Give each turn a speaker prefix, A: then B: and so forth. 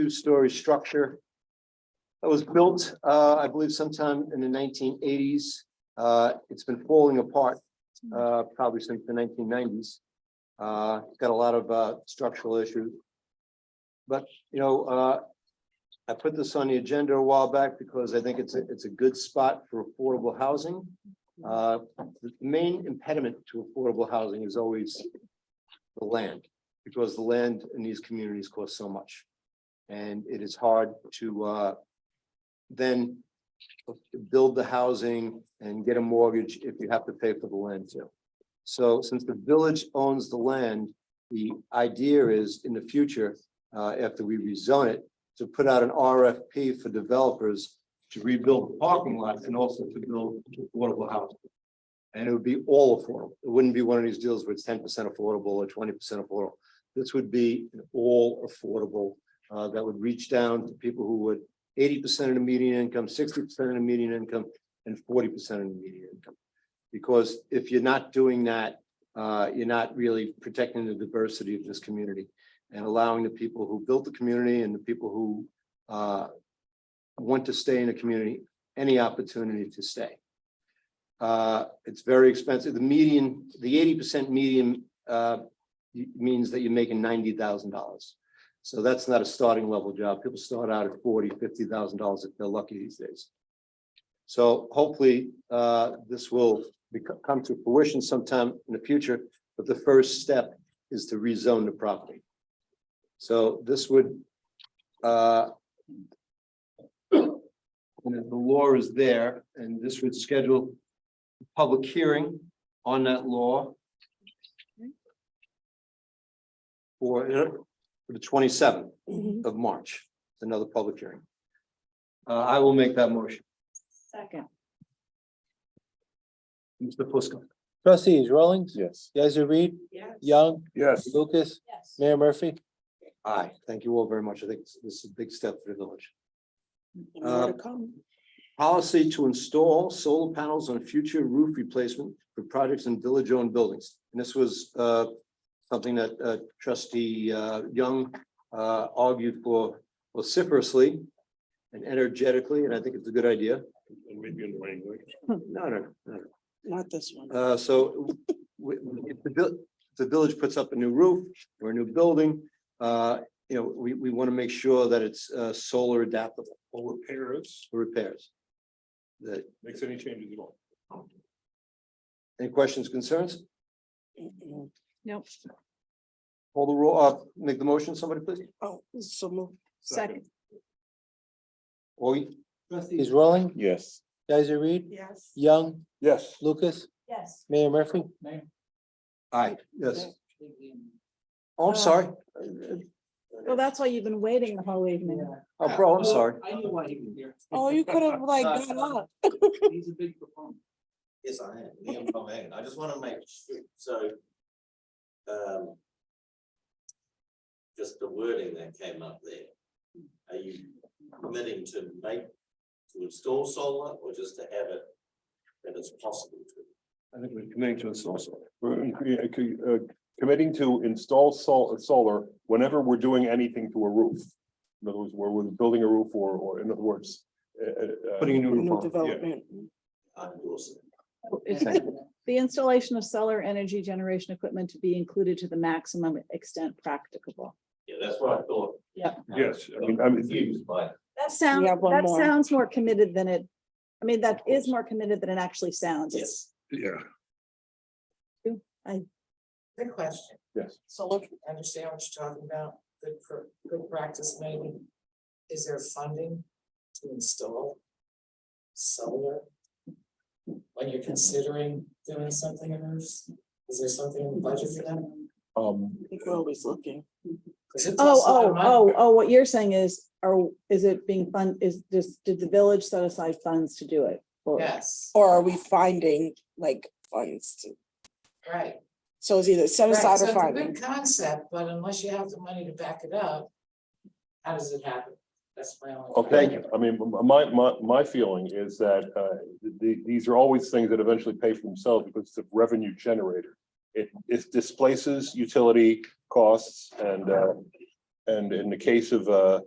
A: two-story structure. That was built, uh, I believe sometime in the nineteen eighties. Uh, it's been falling apart, uh, probably since the nineteen nineties. Uh, it's got a lot of, uh, structural issues. But, you know, uh, I put this on the agenda a while back because I think it's a, it's a good spot for affordable housing. Uh, the main impediment to affordable housing is always the land, because the land in these communities costs so much. And it is hard to uh then build the housing and get a mortgage if you have to pay for the land too. So since the village owns the land, the idea is in the future, uh, after we rezone it, to put out an RFP for developers to rebuild the parking lots and also to build affordable housing. And it would be all affordable. It wouldn't be one of these deals where it's ten percent affordable or twenty percent affordable. This would be an all affordable, uh, that would reach down to people who would eighty percent of the median income, sixty percent of the median income, and forty percent of the median income. Because if you're not doing that, uh, you're not really protecting the diversity of this community and allowing the people who built the community and the people who, uh, want to stay in a community, any opportunity to stay. Uh, it's very expensive. The median, the eighty percent median, uh, y- means that you're making ninety thousand dollars. So that's not a starting level job. People start out at forty, fifty thousand dollars if they're lucky these days. So hopefully, uh, this will become, come to fruition sometime in the future, but the first step is to rezone the property. So this would, uh, and if the law is there, and this would schedule a public hearing on that law for, uh, for the twenty-seventh
B: Mhm.
A: of March, another public hearing. Uh, I will make that motion.
B: Second.
A: Mr. Fusco.
C: Trustees Rollins,
D: Yes.
C: Yazdi Reed,
B: Yes.
C: Young,
D: Yes.
C: Lucas,
B: Yes.
C: Mayor Murphy.
A: Aye, thank you all very much. I think this- this is a big step for the village.
B: And more to come.
A: Policy to install solar panels on future roof replacement for projects in village-owned buildings. And this was uh, something that uh, trustee uh, Young uh, argued for vociferously and energetically, and I think it's a good idea.
D: Maybe in language.
A: No, no, no, no.
B: Not this one.
A: Uh, so w- w- if the vil- if the village puts up a new roof or a new building, uh, you know, we, we want to make sure that it's, uh, solar adaptable
D: Or repairs,
A: for repairs. That,
D: makes any changes at all.
A: any questions, concerns?
B: Mm-mm.
E: Nope.
A: Hold the roll, uh, make the motion, somebody please.
B: Oh, so moved.
E: Second.
A: Or
C: Trustees Rollins,
D: Yes.
C: Yazdi Reed,
B: Yes.
C: Young,
D: Yes.
C: Lucas,
B: Yes.
C: Mayor Murphy.
A: Aye, yes. Oh, I'm sorry.
B: Well, that's why you've been waiting the whole evening.
A: Oh, bro, I'm sorry.
F: I knew why he was here.
B: Oh, you could have like got up.
F: He's a big proponent.
G: Yes, I am, Liam from Hagen. I just wanna make, sure. so. Um. Just the wording that came up there. Are you committing to make, to install solar or just to have it? That it's possible to,
A: I think we're committing to install solar.
D: uh, Committing to install sol- uh, solar whenever we're doing anything to a roof. In other words, where we're building a roof or, or in other words. uh, uh, uh,
A: Putting a new
B: New
A: roof on.
B: development.
G: I endorse it.
E: It's the installation of solar energy generation equipment to be included to the maximum extent practicable.
G: Yeah, that's what I thought.
D: Yes, I mean, I mean,
G: Confused by, it.
E: That sounds,
B: have one
E: that
B: more.
E: sounds more committed than it, I mean, that is more committed than it actually sounds.
G: yes.
D: yeah,
H: Good question.
D: yes.
H: So look, I understand what you're talking about, good for, good practice maybe. Is there funding to install solar? Like you're considering doing something in this? Is there something in the budget for that?
D: Um,
B: I think We're always looking.
H: 'Cause it
E: Oh,
H: costs a lot
E: oh,
H: of money.
E: oh, oh, what you're saying is, are is it being fun, is this, did the village set aside funds to do it?
B: oh.
E: Or-
H: Yes,
B: Or are we finding like funds to,
H: right.
B: so it's either set
H: Right, so
B: aside
H: it's
B: or
H: a
B: finding?
H: good concept, but unless you have the money to back it up, how does it happen? That's my only.
D: Okay,
A: Thank you.
D: I mean, my, my, my feeling is that, uh, the, these are always things that eventually pay for themselves because it's a revenue generator. It, it displaces utility costs and, uh, and in the case of, uh,